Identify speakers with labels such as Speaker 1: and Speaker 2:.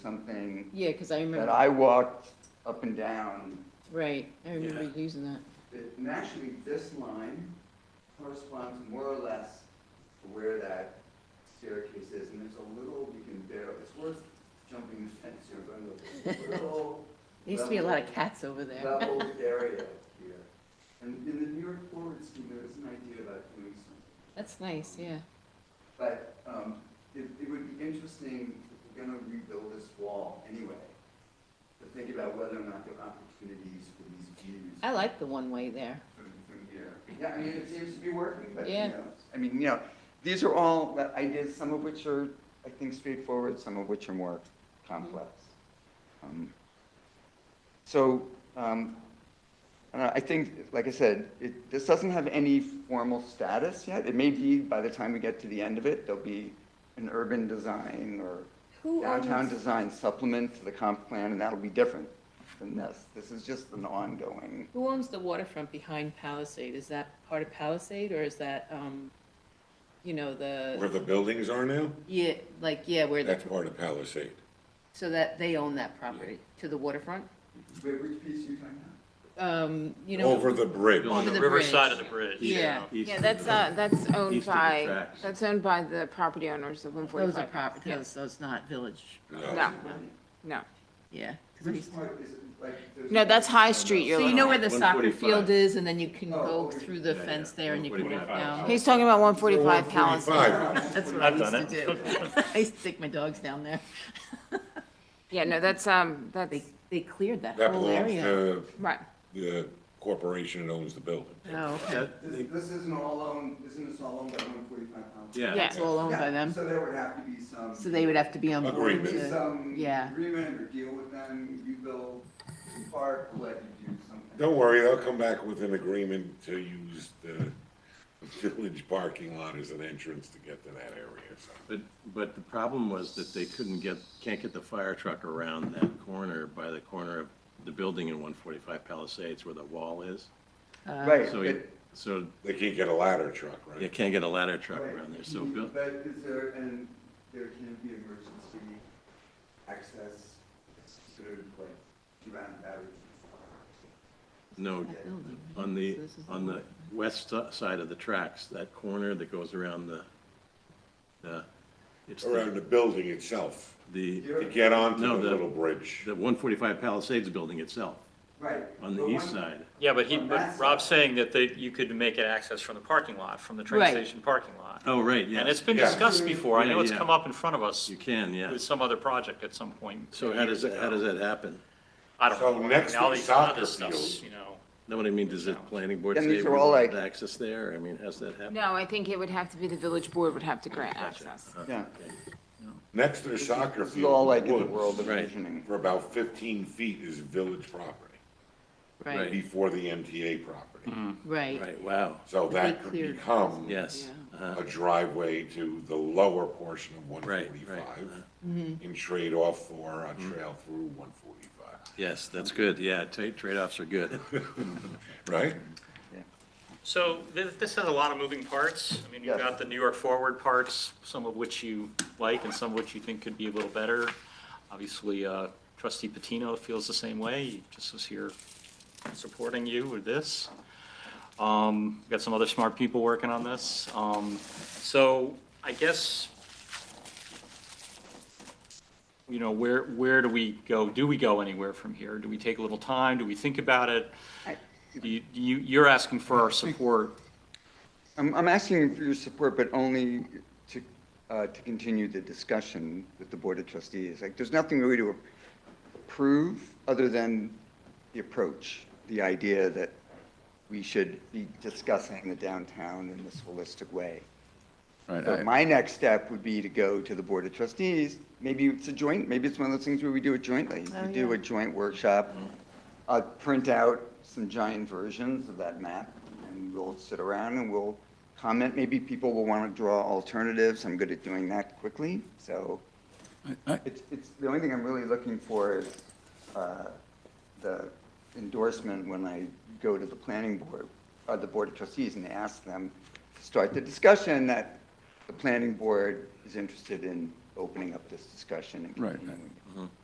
Speaker 1: something
Speaker 2: Yeah, because I
Speaker 1: that
Speaker 2: remember,
Speaker 1: I walked up and down.
Speaker 2: right, I remember using that.
Speaker 1: It- And actually, this line corresponds more or less to where that staircase is, and there's a little, you can barely, it's worth jumping the fence here, but there's a little
Speaker 2: There used to be a lot of cats over there.
Speaker 1: leveled area here. And in the New York Forward scheme, there is an idea about doing something.
Speaker 2: That's nice, yeah.
Speaker 1: But um, it, it would be interesting if we're going to rebuild this wall anyway, to think about whether or not there are opportunities for these views
Speaker 2: I like the one-way there.
Speaker 1: from, from here. Yeah, I mean, it seems to be working, but you
Speaker 2: Yeah.
Speaker 1: know, I mean, you know, these are all uh, ideas, some of which are, I think, straightforward, some of which are more complex. Um, So, um, I don't know, I think, like I said, it, this doesn't have any formal status yet. It may be, by the time we get to the end of it, there'll be an urban design or
Speaker 3: Who are
Speaker 1: downtown
Speaker 3: these,
Speaker 1: design supplement to the comp plan, and that'll be different than this. This is just an ongoing.
Speaker 2: Who owns the waterfront behind Palisade? Is that part of Palisade, or is that, um, you know,
Speaker 4: Where
Speaker 2: the,
Speaker 4: the buildings are now,
Speaker 2: yeah, like, yeah, where the,
Speaker 4: that's part of Palisade.
Speaker 2: so that they own that property to the waterfront?
Speaker 1: Wait, which piece are you talking about?
Speaker 2: Um, you know.
Speaker 4: Over the bridge.
Speaker 2: Over
Speaker 5: On the
Speaker 2: the
Speaker 5: river
Speaker 2: bridge.
Speaker 5: side of the bridge.
Speaker 2: Yeah.
Speaker 6: East
Speaker 3: yeah,
Speaker 6: of
Speaker 3: that's,
Speaker 6: the-
Speaker 3: uh, that's owned
Speaker 6: East of the
Speaker 3: by,
Speaker 6: tracks.
Speaker 3: that's owned by the property owners of one
Speaker 2: Those are
Speaker 3: forty-five.
Speaker 2: prop, those, those not village,
Speaker 3: No, no.
Speaker 2: yeah. 'cause I
Speaker 1: Which
Speaker 2: used to-
Speaker 1: part is it, like? there's-
Speaker 3: No, that's High Street you're
Speaker 2: So you
Speaker 3: looking
Speaker 2: know
Speaker 3: at.
Speaker 2: where the soccer
Speaker 6: 145.
Speaker 2: field is, and then you can
Speaker 1: Oh,
Speaker 2: go
Speaker 1: okay.
Speaker 2: through the
Speaker 6: Yeah, yeah.
Speaker 2: fence there and you can walk
Speaker 6: 145.
Speaker 2: down.
Speaker 3: He's talking about one forty-five Palisade.
Speaker 4: 145.
Speaker 2: That's what I
Speaker 5: I've
Speaker 2: used to
Speaker 5: done
Speaker 2: do. I used to stick my dogs down there.
Speaker 3: Yeah, no, that's, um, that's,
Speaker 2: They, they cleared that
Speaker 4: That
Speaker 2: whole
Speaker 4: belongs
Speaker 2: area.
Speaker 4: to
Speaker 3: right.
Speaker 4: the corporation that owns the building.
Speaker 2: Oh, okay.
Speaker 6: That-
Speaker 1: This, this isn't all owned, isn't this all owned by one forty-five pounds?
Speaker 6: Yeah,
Speaker 3: Yeah.
Speaker 2: It's all owned by them,
Speaker 1: So there would have to be some.
Speaker 2: so they would have to be on board
Speaker 1: There would be
Speaker 2: to,
Speaker 1: some
Speaker 2: yeah.
Speaker 1: agreement or deal with them, you build the park, we'll let you do something.
Speaker 4: Don't worry, I'll come back with an agreement to use the village parking lot as an entrance to get to that area. so.
Speaker 6: but, but the problem was that they couldn't get, can't get the fire truck around that corner by the corner of the building in one forty-five Palisades where the wall is.
Speaker 2: uh,
Speaker 1: Right,
Speaker 6: So, you- so
Speaker 4: They can't get a ladder truck,
Speaker 6: you
Speaker 4: right?
Speaker 6: can't get a ladder truck
Speaker 1: Right.
Speaker 6: around there, so, Bill-
Speaker 1: But is there, and there can be emergency access, sort of like around that.
Speaker 6: no, on the, on the west si- side of the tracks, that corner that goes around the, the, it's
Speaker 4: Around
Speaker 6: the,
Speaker 4: the building itself,
Speaker 6: the
Speaker 4: to get onto the
Speaker 6: No, the-
Speaker 4: little bridge.
Speaker 6: one forty-five Palisades building itself,
Speaker 1: Right.
Speaker 6: on the
Speaker 1: but
Speaker 6: east
Speaker 1: one-
Speaker 6: side.
Speaker 5: Yeah, but he,
Speaker 1: On that
Speaker 5: but
Speaker 1: side.
Speaker 5: Rob's saying that they, you could make it access from the parking lot, from the train
Speaker 2: Right.
Speaker 5: station parking lot.
Speaker 6: Oh, right, yeah.
Speaker 5: And it's been
Speaker 4: Yeah.
Speaker 5: discussed before. I
Speaker 6: Yeah,
Speaker 5: know it's
Speaker 6: yeah.
Speaker 5: come up in front of us
Speaker 6: You can, yeah.
Speaker 5: with some other project at some point.
Speaker 6: So how does,
Speaker 5: years
Speaker 6: that- how
Speaker 5: ago.
Speaker 6: does that happen?
Speaker 5: I don't
Speaker 4: So
Speaker 5: know. I mean,
Speaker 4: next
Speaker 5: all
Speaker 4: to
Speaker 5: these other
Speaker 4: soccer
Speaker 5: stuff's,
Speaker 4: field.
Speaker 5: You know,
Speaker 6: No, what I mean, does the planning board
Speaker 1: And
Speaker 6: say
Speaker 1: these
Speaker 6: we
Speaker 1: are all
Speaker 6: want
Speaker 1: like-
Speaker 6: access there? I mean, how's that happen?
Speaker 3: No, I think it would have to be the village board would have to grant access.
Speaker 1: Yeah.
Speaker 4: Next to the soccer
Speaker 1: This is all
Speaker 4: field,
Speaker 1: like in the
Speaker 4: woods,
Speaker 1: world of
Speaker 6: Right.
Speaker 1: visioning.
Speaker 4: for about fifteen feet is village property,
Speaker 2: right,
Speaker 4: before the MTA property.
Speaker 2: right,
Speaker 6: Right, wow,
Speaker 4: So
Speaker 2: But they
Speaker 4: that could
Speaker 2: cleared-
Speaker 4: become
Speaker 6: yes.
Speaker 2: Yeah.
Speaker 6: uh-huh.
Speaker 4: a driveway to the lower portion of
Speaker 6: right.
Speaker 4: 145 and trade off for a trail through 145,
Speaker 6: Yes, that's good, yeah, trade, trade-offs are good.
Speaker 4: right?
Speaker 5: so this, this has a lot of moving parts. I mean, you've
Speaker 1: Yes.
Speaker 5: got the New York Forward parts, some of which you like and some of which you think could be a little better. Obviously, uh, trustee Patino feels the same way. He just was here supporting you with this. Um, we've got some other smart people working on this. Um, so I guess, you know, where, where do we go? Do we go anywhere from here? Do we take a little time? Do we think about it? Do You, you, you're asking for our support.
Speaker 1: I'm, I'm asking for your support, but only to, uh, to continue the discussion with the Board of Trustees. Like, there's nothing really to approve other than the approach, the idea that we should be discussing the downtown in this holistic way. So my next step would be to go to the Board of Trustees. Maybe it's a joint, maybe it's one of those things where we do it jointly. We do a joint workshop. I'll print out some giant versions of that map and we'll sit around and we'll comment. Maybe people will want to draw alternatives. I'm good at doing that quickly. So it's, it's, the only thing I'm really looking for is uh, the endorsement when I go to the planning board, or the board of trustees and ask them to start the discussion that the planning board is interested in opening up this discussion and
Speaker 7: Right, right.
Speaker 1: continuing it.